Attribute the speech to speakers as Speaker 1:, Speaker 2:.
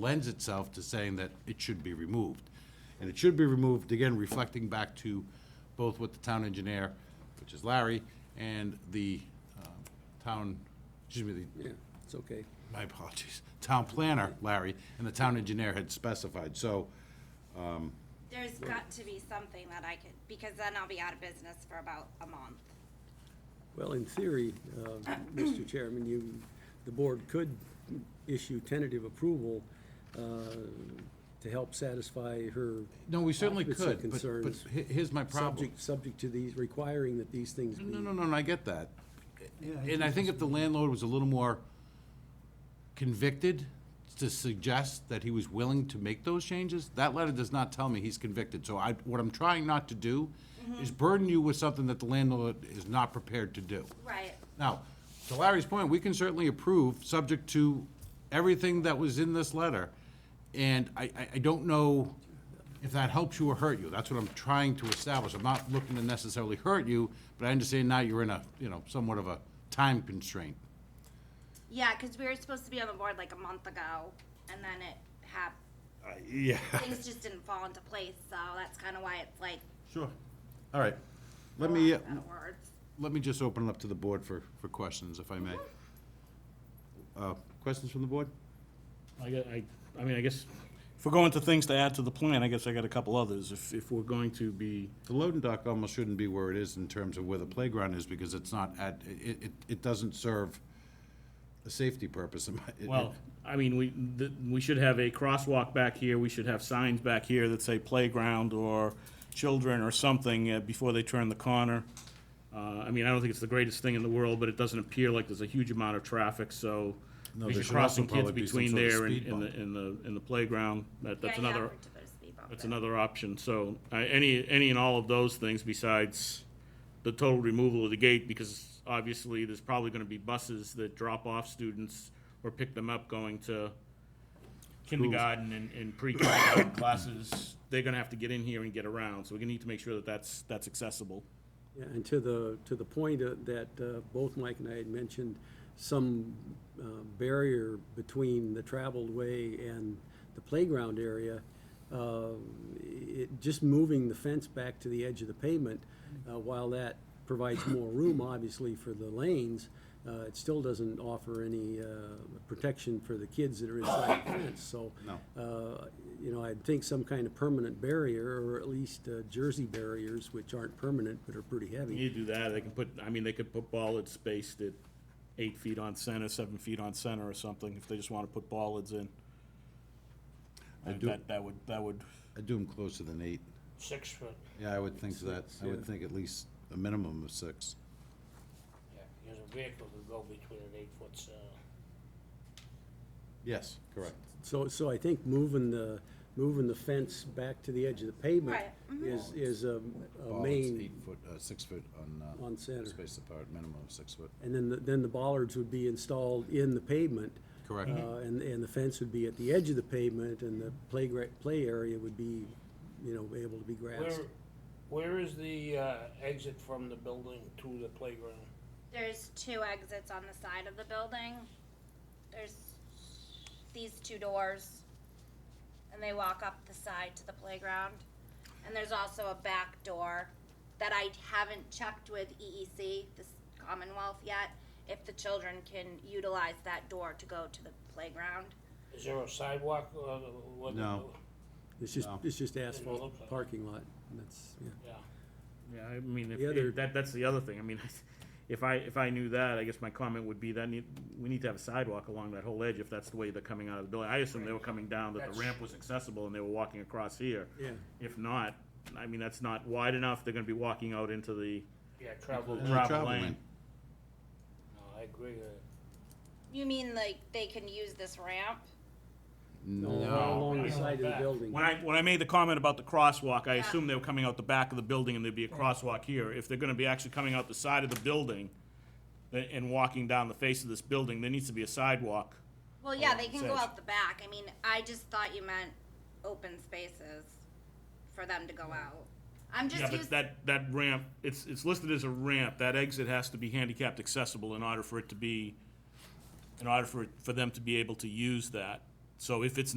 Speaker 1: lends itself to saying that it should be removed. And it should be removed, again, reflecting back to both what the town engineer, which is Larry, and the um, town, excuse me, the
Speaker 2: Yeah, it's okay.
Speaker 1: my apologies, town planner, Larry, and the town engineer had specified, so,
Speaker 3: There's got to be something that I could, because then I'll be out of business for about a month.
Speaker 2: Well, in theory, uh, Mr. Chairman, you, the board could issue tentative approval uh, to help satisfy her.
Speaker 1: no, we certainly
Speaker 2: occupancy
Speaker 1: could, but, but
Speaker 2: concerns,
Speaker 1: he- here's my problem.
Speaker 2: Subject, subject to these, requiring that these things be.
Speaker 1: No, no, no, no, I get that. And I think if the landlord was a little more convicted to suggest that he was willing to make those changes, that letter does not tell me he's convicted. So I, what I'm trying not to do is burden you with something that the landlord is not prepared to do.
Speaker 3: Right.
Speaker 1: Now, to Larry's point, we can certainly approve, subject to everything that was in this letter. And I, I, I don't know if that helps you or hurt you. That's what I'm trying to establish. I'm not looking to necessarily hurt you, but I understand now you're in a, you know, somewhat of a time constraint.
Speaker 3: Yeah, because we were supposed to be on the board like a month ago, and then it hap,
Speaker 1: Yeah.
Speaker 3: things just didn't fall into place, so that's kind of why it's like,
Speaker 1: Sure. All right. Let me, uh,
Speaker 3: out of words.
Speaker 1: let me just open it up to the board for, for questions, if I may. Uh, Questions from the board?
Speaker 4: I, gue- I, I mean, I guess, if we're going to things to add to the plan, I guess I got a couple others. If, if we're going to be,
Speaker 1: The loading dock almost shouldn't be where it is in terms of where the playground is, because it's not at, it, it, it doesn't serve a safety purpose. in my- it-
Speaker 4: well, I mean, we, th- we should have a crosswalk back here, we should have signs back here that say playground or children or something uh, before they turn the corner. Uh, I mean, I don't think it's the greatest thing in the world, but it doesn't appear like there's a huge amount of traffic, so
Speaker 1: No,
Speaker 4: if
Speaker 1: there
Speaker 4: you're
Speaker 1: should also
Speaker 4: crossing kids
Speaker 1: probably be some
Speaker 4: between
Speaker 1: sort of
Speaker 4: there and
Speaker 1: speed
Speaker 4: and the,
Speaker 1: bump.
Speaker 4: and the, and the playground, that, that's
Speaker 3: Yeah, yeah,
Speaker 4: another,
Speaker 3: we're to put a speed bump
Speaker 4: That's
Speaker 3: in.
Speaker 4: another option, so, uh, any, any and all of those things besides the total removal of the gate, because obviously, there's probably gonna be buses that drop off students or pick them up going to kindergarten and, and pre-kindergarten classes, they're gonna have to get in here and get around, so we need to make sure that that's, that's accessible.
Speaker 2: Yeah, And to the, to the point uh, that uh, both Mike and I had mentioned, some uh, barrier between the traveled way and the playground area, uh, it, just moving the fence back to the edge of the pavement, uh, while that provides more room, obviously, for the lanes, uh, it still doesn't offer any uh, protection for the kids that are inside the fence, so. uh, You know, I'd think some kind of permanent barrier, or at least uh, jersey barriers, which aren't permanent but are pretty heavy.
Speaker 4: You do that, they can put, I mean, they could put bollards spaced at eight feet on center, seven feet on center or something, if they just wanna put bollards in.
Speaker 1: I do-
Speaker 4: That, that would, that would
Speaker 1: I do them closer than eight.
Speaker 5: six foot,
Speaker 1: Yeah, I would think that, I would
Speaker 2: yeah.
Speaker 1: think at least a minimum of six.
Speaker 5: yeah, because a vehicle could go between an eight foot cell.
Speaker 1: Yes, correct.
Speaker 2: So, so I think moving the, moving the fence back to the edge of the pavement
Speaker 3: Right, mhm.
Speaker 2: is, is a a
Speaker 1: Bollards,
Speaker 2: main,
Speaker 1: Eight foot, uh, six foot on, uh.
Speaker 2: On center.
Speaker 1: Spaced apart, minimum of six foot.
Speaker 2: and then, the- then the bollards would be installed in the pavement.
Speaker 1: Correct. Mm-hmm.
Speaker 2: Uh, And, and the fence would be at the edge of the pavement, and the play, gra- play area would be, you know, able to be grassed.
Speaker 5: Where, where is the, uh, exit from the building to the playground?
Speaker 3: There's two exits on the side of the building. There's these two doors, and they walk up the side to the playground. And there's also a back door that I haven't checked with E EEC, this Commonwealth yet, if the children can utilize that door to go to the playground.
Speaker 5: Is there a sidewalk, uh, what?
Speaker 1: No.
Speaker 2: It's just,
Speaker 1: No.
Speaker 2: it's just
Speaker 5: look
Speaker 2: asphalt
Speaker 5: like it.
Speaker 2: parking lot, and that's, yeah.
Speaker 5: Yeah,
Speaker 4: Yeah, I mean, if,
Speaker 2: The other-
Speaker 4: if that, that's the other thing, I mean, if I, if I knew that, I guess my comment would be that need, we need to have a sidewalk along that whole edge if that's the way they're coming out of the building. I assume they were coming down, that the
Speaker 5: That's-
Speaker 4: ramp was accessible and they were walking across here.
Speaker 2: Yeah.
Speaker 4: If not, I mean, that's not wide enough, they're gonna be walking out into the
Speaker 5: yeah, travel,
Speaker 1: And
Speaker 5: no,
Speaker 1: the
Speaker 4: Drop
Speaker 1: travel
Speaker 4: lane.
Speaker 5: I agree, uh, with that.
Speaker 3: You mean like they can use this ramp?
Speaker 1: No,
Speaker 2: Along the
Speaker 5: Yeah.
Speaker 2: side of the
Speaker 5: Back.
Speaker 2: building.
Speaker 4: When I, when I made the comment about the crosswalk, I
Speaker 3: Yeah.
Speaker 4: assumed they were coming out the back of the building and there'd be a crosswalk here. If they're gonna be actually coming out the side of the building tha- and walking down the face of this building, there needs to be a sidewalk.
Speaker 3: Well, yeah,
Speaker 4: Oh,
Speaker 3: they can
Speaker 4: so
Speaker 3: go
Speaker 4: it's-
Speaker 3: out the back. I mean, I just thought you meant open spaces for them to go out. I'm just
Speaker 4: Yeah, but
Speaker 3: used.
Speaker 4: that, that ramp, it's, it's listed as a ramp, that exit has to be handicapped accessible in order for it to be, in order for, it- for them to be able to use that. So if it's